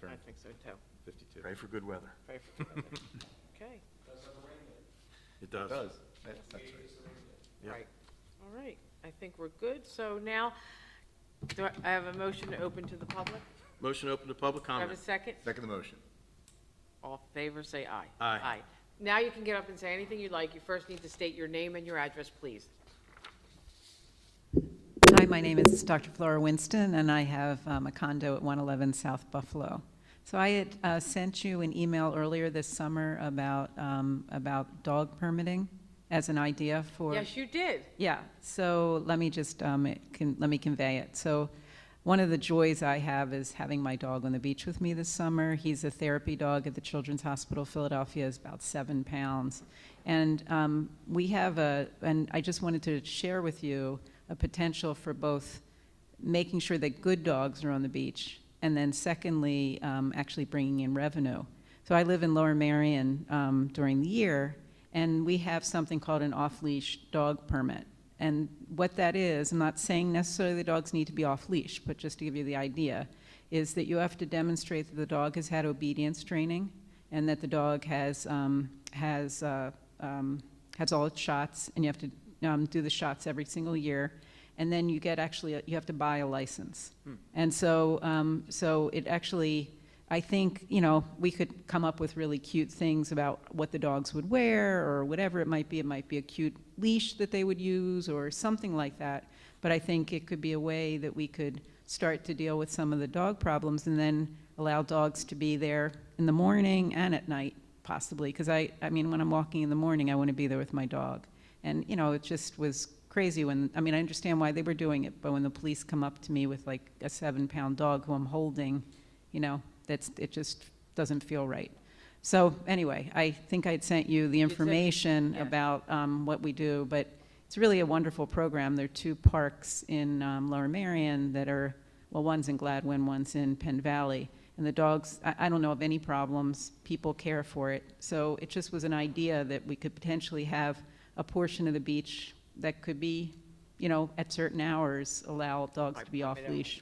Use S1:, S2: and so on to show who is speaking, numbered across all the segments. S1: turn.
S2: I think so too.
S1: 52.
S3: Pray for good weather.
S2: Pray for together. Okay,
S3: It
S1: It
S3: does.
S1: does. That's that's right.
S3: Yep.
S2: right. All right, I think we're good. So now, do I- I have a motion to open to the public?
S3: Motion open to public
S2: Do I have a
S3: comment.
S2: second?
S1: Second the motion.
S2: All in favor, say aye.
S3: Aye.
S2: Now you can get up and say anything you'd like. You first need to state your name and your address, please.
S4: Hi, my name is Dr. Flora Winston, and I have um, a condo at 111 South Buffalo. So I had uh, sent you an email earlier this summer about, um, about dog permitting as an idea for.
S2: Yes, you did.
S4: Yeah, so let me just, um, it can, let me convey it. So, one of the joys I have is having my dog on the beach with me this summer. He's a therapy dog at the Children's Hospital Philadelphia, is about seven pounds. And um, we have a, and I just wanted to share with you a potential for both making sure that good dogs are on the beach, and then secondly, um, actually bringing in revenue. So I live in Lower Marion um, during the year, and we have something called an off-leash dog permit. And what that is, I'm not saying necessarily the dogs need to be off-leash, but just to give you the idea, is that you have to demonstrate that the dog has had obedience training and that the dog has, um, has, uh, um, has all its shots, and you have to um, do the shots every single year. And then you get actually, you have to buy a license. And so, um, so it actually, I think, you know, we could come up with really cute things about what the dogs would wear or whatever it might be. It might be a cute leash that they would use or something like that. But I think it could be a way that we could start to deal with some of the dog problems and then allow dogs to be there in the morning and at night possibly. Because I, I mean, when I'm walking in the morning, I want to be there with my dog. And, you know, it just was crazy when, I mean, I understand why they were doing it, but when the police come up to me with like a seven pound dog who I'm holding, you know, that's, it just doesn't feel right. So anyway, I think I'd sent you the
S2: sent-
S4: information
S2: yeah.
S4: about um, what we do, but it's really a wonderful program. There are two parks in um, Lower Marion that are, well, one's in Gladwin, one's in Penn Valley. And the dogs, I, I don't know of any problems. People care for it. So it just was an idea that we could potentially have a portion of the beach that could be, you know, at certain hours, allow dogs to be off leash.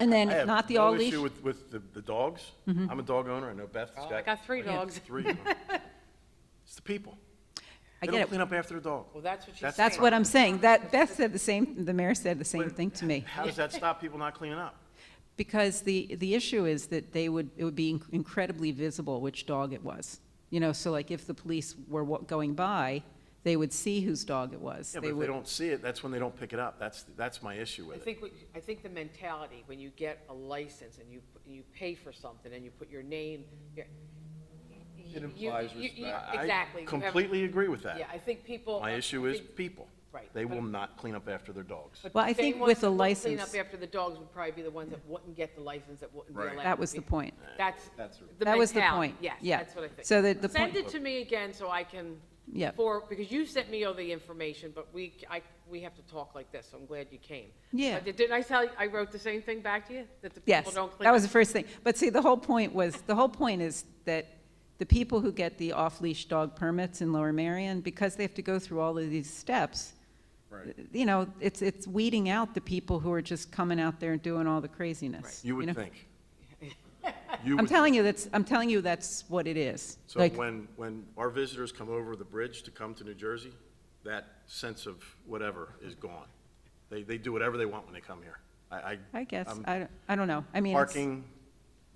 S4: And then,
S3: I have
S4: not the
S3: no
S4: all leash.
S3: issue with, with the, the dogs. I'm a dog owner. I know Beth's got.
S2: Oh, I got three
S3: like
S2: dogs.
S3: Three. of 'em. It's the people.
S4: I
S3: They
S4: get
S3: don't
S4: it.
S3: clean up after the dog.
S2: Well, that's what she's
S3: That's-
S2: saying.
S4: That's what I'm saying. That, Beth said the same, the mayor said the same
S3: But-
S4: thing to me.
S3: How does that stop people not cleaning up?
S4: Because the, the issue is that they would, it would be inc- incredibly visible which dog it was. You know, so like if the police were wa- going by, they would see whose dog it was.
S3: Yeah, but if
S4: would-
S3: they don't see it, that's when they don't pick it up. That's, that's my issue
S2: I
S3: with it.
S2: think, what- I think the mentality, when you get a license and you, you pay for something and you put your name, your. It
S1: implies respect.
S3: I
S2: Exactly. You have-
S3: Completely agree with
S2: Yeah,
S3: that.
S2: I think people.
S3: My
S2: I
S3: issue is
S2: think-
S3: people.
S2: Right,
S3: They
S2: but-
S3: will not clean up after their dogs.
S2: but
S4: Well, I
S2: the
S4: think
S2: same ones
S4: with a
S2: that would Clean up
S4: license-
S2: after the dogs would probably be the ones that wouldn't get the license, that wouldn't be
S1: Right.
S2: allowed.
S4: That
S2: to
S4: was the
S2: be-
S4: point.
S2: That's
S1: That's
S2: the
S4: That was the
S2: mentality.
S4: point.
S2: Yes,
S4: Yeah.
S2: that's what I think.
S4: So that the
S2: Send
S4: point-
S2: it to me again so I can.
S4: Yeah.
S2: For, because you sent me all the information, but we, I, we have to talk like this, so I'm glad you came.
S4: Yeah.
S2: Uh, Didn't I tell, you I wrote the same thing back to you? That the people
S4: Yes,
S2: don't clean
S4: that
S2: up?
S4: was the first thing. But see, the whole point was, the whole point is that the people who get the off-leash dog permits in Lower Marion, because they have to go through all of these steps, you know, it's, it's weeding out the people who are just coming out there and doing all the craziness.
S3: You
S4: know?
S3: would think. You
S4: I'm
S3: would
S4: telling you, that's, I'm telling you, that's what it is.
S3: So
S4: Like,
S3: when, when our visitors come over the bridge to come to New Jersey, that sense of whatever is gone. They, they do whatever they want when they come here. I, I.
S4: I guess,
S3: I'm
S4: I, don't- I don't know. I mean, it's-
S3: Um, Parking,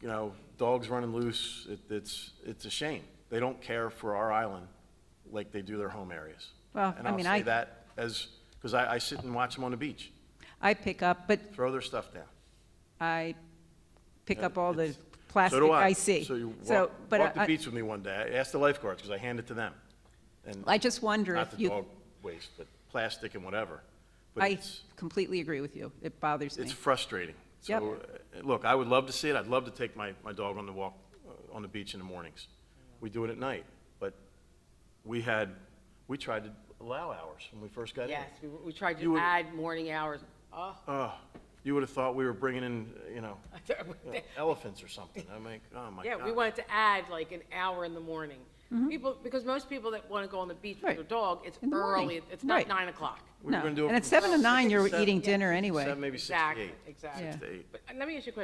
S3: you know, dogs running loose, it, it's, it's a shame. They don't care for our island like they do their home areas.
S4: Well, I mean,
S3: And I'll
S4: I-
S3: say that as, because I, I sit and watch them on the beach,
S4: I pick up, but
S3: throw their stuff down.
S4: I pick up all the
S3: It's- So
S4: plastic
S3: do
S4: I see.
S3: So you
S4: So,
S3: walk,
S4: but
S3: walk the
S4: I-
S3: beach with me one day. I asked the lifeguards, because I hand it to them. And
S4: I just wonder
S3: not
S4: if
S3: the
S4: you
S3: dog waste, but plastic and whatever. But
S4: I
S3: it's,
S4: completely agree with you. It bothers me.
S3: it's frustrating. So, uh, look, I would love to see it. I'd love to take my, my dog on the walk, uh, on the beach in the mornings. We do it at night, but we had, we tried to allow hours when we first got in.
S2: Yes, we, we tried
S3: You
S2: to
S3: would-
S2: add morning hours. Oh,
S3: Oh, you would have thought we were bringing in, you know, you know, elephants or something. I'm like, oh my
S2: yeah,
S3: God.
S2: we wanted to add like an hour in the morning. People, because most people that want to go on the beach with
S4: Mm-hmm. Right.
S2: their dog, it's
S4: In the morning.
S2: early, it's not
S4: Right.
S2: nine o'clock.
S3: We were
S4: No.
S3: gonna do it
S4: And at
S3: from
S4: seven to
S3: six
S4: nine, you're
S3: seven-
S4: eating dinner anyway.
S3: Seven, maybe six to
S2: Exactly,
S3: eight.
S2: exactly.
S3: Six to eight.
S2: But uh, let me ask you a question.